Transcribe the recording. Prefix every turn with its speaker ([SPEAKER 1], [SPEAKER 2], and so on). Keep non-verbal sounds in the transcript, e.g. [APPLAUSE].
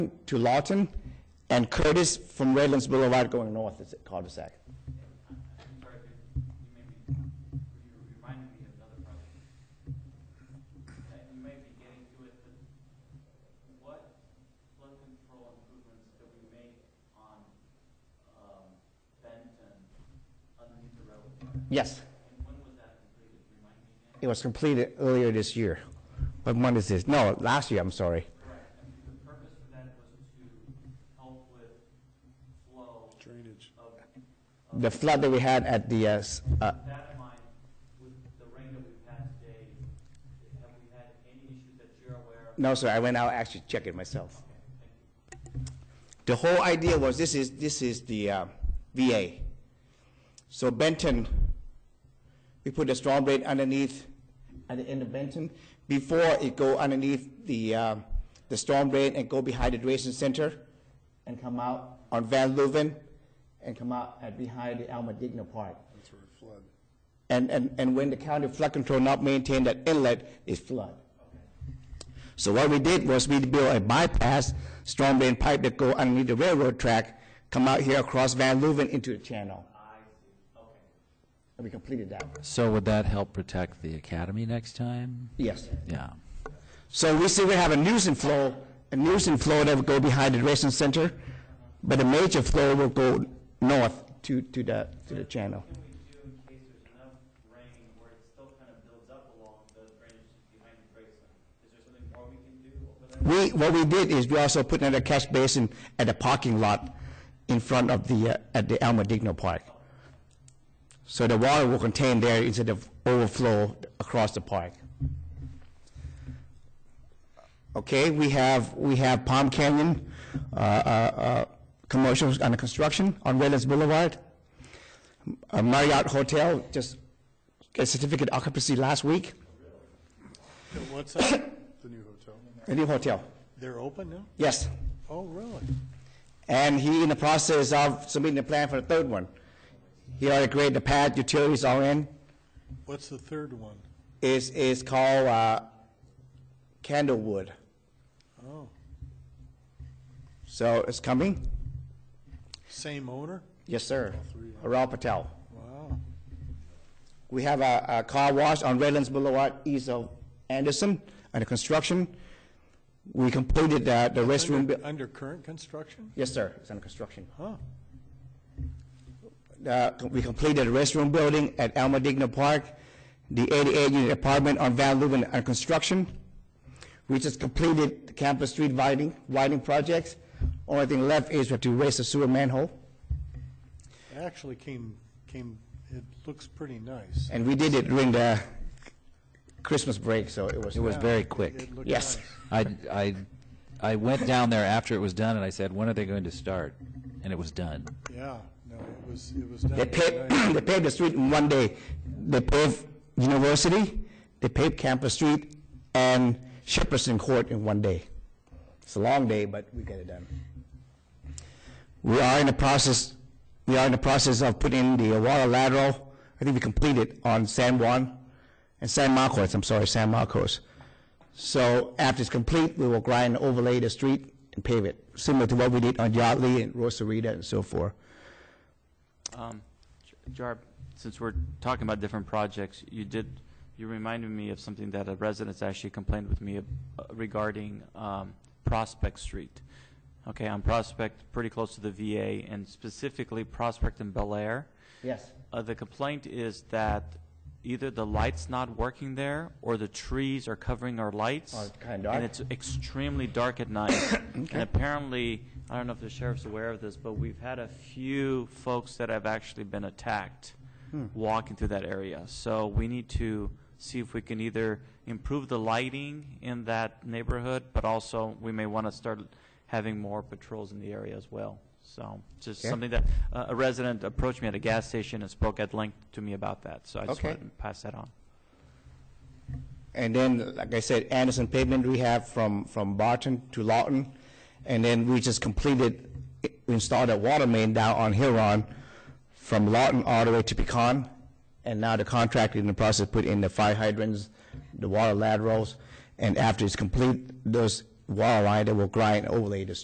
[SPEAKER 1] to Lawton, and Curtis from Redlands Boulevard going north, is it cul-de-sac?
[SPEAKER 2] Sorry, could you maybe, you reminded me of another project. That you may be getting to it, but what flood control improvements do we make on, um, Benton underneath the railroad track?
[SPEAKER 1] Yes,
[SPEAKER 2] And when was that completed, remind me again?
[SPEAKER 1] it was completed earlier this year. What month is this? No, last year, I'm sorry.
[SPEAKER 2] Correct, and the purpose for that was to help with flow
[SPEAKER 3] Drainage.
[SPEAKER 2] of,
[SPEAKER 1] The flood that we had at the, uh, s- uh,
[SPEAKER 2] that in mind, with the rain that we've had today, have we had any issues that you're aware of?
[SPEAKER 1] no, sir, I went out actually check it myself.
[SPEAKER 2] Okay, thank you.
[SPEAKER 1] The whole idea was, this is, this is the uh, VA. So Benton, we put the storm blade underneath, at the end of Benton, before it go underneath the, uh, the storm blade and go behind the Drainage Center and come out on Van Louven and come out at behind the Alma Digna Park.
[SPEAKER 3] That's where it flood.
[SPEAKER 1] And, and, and when the county flood control not maintain that inlet, it flood. So what we did was we built a bypass, storm drain pipe that go underneath the railroad track, come out here across Van Louven into the channel. And we completed that,
[SPEAKER 4] So would that help protect the academy next time?
[SPEAKER 1] yes.
[SPEAKER 4] Yeah.
[SPEAKER 1] So we see we have a nuisance flow, a nuisance flow that would go behind the dressing center, but the major flow will go north to, to the, to the channel.
[SPEAKER 2] What can we do in case there's enough rain where it still kind of builds up along the drainage behind the Graceland? Is there something more we can do over there?
[SPEAKER 1] We, what we did is we also put another catch basin at the parking lot in front of the, uh, at the Alma Digno Park. So the water will contain there instead of overflow across the park. Okay, we have, we have Palm Canyon, uh, uh, uh, commercials under construction on Redlands Boulevard. A Marriott Hotel just got certificate occupancy last week,
[SPEAKER 3] What's that? [COUGHS] The new hotel.
[SPEAKER 1] a new hotel,
[SPEAKER 3] They're open now?
[SPEAKER 1] yes.
[SPEAKER 3] Oh, really?
[SPEAKER 1] And he in the process of submitting the plan for the third one. He already created the pad, utilities all in.
[SPEAKER 3] What's the third one?
[SPEAKER 1] It's, it's called, uh, Candlewood.
[SPEAKER 3] Oh,
[SPEAKER 1] So it's coming?
[SPEAKER 3] same owner?
[SPEAKER 1] Yes, sir.
[SPEAKER 3] three, huh?
[SPEAKER 1] Rao Patel.
[SPEAKER 3] Wow.
[SPEAKER 1] We have a, a car wash on Redlands Boulevard east of Anderson under construction. We completed the, the restroom.
[SPEAKER 3] Under,
[SPEAKER 1] bu-
[SPEAKER 3] under current construction?
[SPEAKER 1] Yes, sir. It's under construction.
[SPEAKER 3] Huh,
[SPEAKER 1] uh, we completed the restroom building at Alma Digna Park, the 88-unit apartment on Van Louven under construction. We just completed the campus street widening, widening projects. Only thing left is we have to raise the sewer manhole,
[SPEAKER 3] it actually came, came, it looks pretty nice.
[SPEAKER 1] and we did it during the Christmas break, so it was. uh,
[SPEAKER 4] It was very quick.
[SPEAKER 3] It looked
[SPEAKER 1] Yes.
[SPEAKER 3] nice.
[SPEAKER 4] I, I, I went down there after it was done and I said, when are they going to start? And it was done.
[SPEAKER 3] Yeah, no, it was, it was
[SPEAKER 1] They
[SPEAKER 3] done
[SPEAKER 1] paved, [CLEARS THROAT]
[SPEAKER 3] nice.
[SPEAKER 1] they paved the street in one day. They paved University, they paved Campus Street, and Shepherdson Court in one day. It's a long day, but we got it done. We are in the process, we are in the process of putting the water lateral, I think we completed on San Juan, and San Marcos, I'm sorry, San Marcos. So after it's complete, we will grind, and overlay the street and pave it, similar to what we did on Yardley and Rosarita and so forth.
[SPEAKER 2] Um, J- Jarb, since we're talking about different projects, you did, you reminded me of something that a resident's actually complained with me ab- uh, regarding um, Prospect Street. Okay, on Prospect, pretty close to the VA, and specifically Prospect and Bel Air.
[SPEAKER 1] Yes.
[SPEAKER 2] Uh, The complaint is that either the light's not working there, or the trees are covering our lights.
[SPEAKER 1] Oh, it's kinda dark.
[SPEAKER 2] And it's extremely dark
[SPEAKER 1] [COUGHS]
[SPEAKER 2] at night. And apparently, I don't know if the sheriff's aware of this, but we've had a few folks that have actually been attacked
[SPEAKER 1] Hmm.
[SPEAKER 2] walking through that area. So we need to see if we can either improve the lighting in that neighborhood, but also, we may want to start having more patrols in the area as well. So, just
[SPEAKER 1] Okay.
[SPEAKER 2] something that, uh, a resident approached me at a gas station and spoke at length to me about that, so I just
[SPEAKER 1] Okay.
[SPEAKER 2] wanted to pass that on.
[SPEAKER 1] And then, like I said, Anderson pavement rehab from, from Barton to Lawton. And then we just completed, we installed a water main down on Huron from Lawton all the way to Pecan. And now the contractor in the process put in the fire hydrants, the water laterals. And after it's complete, those water line, they will grind overlay the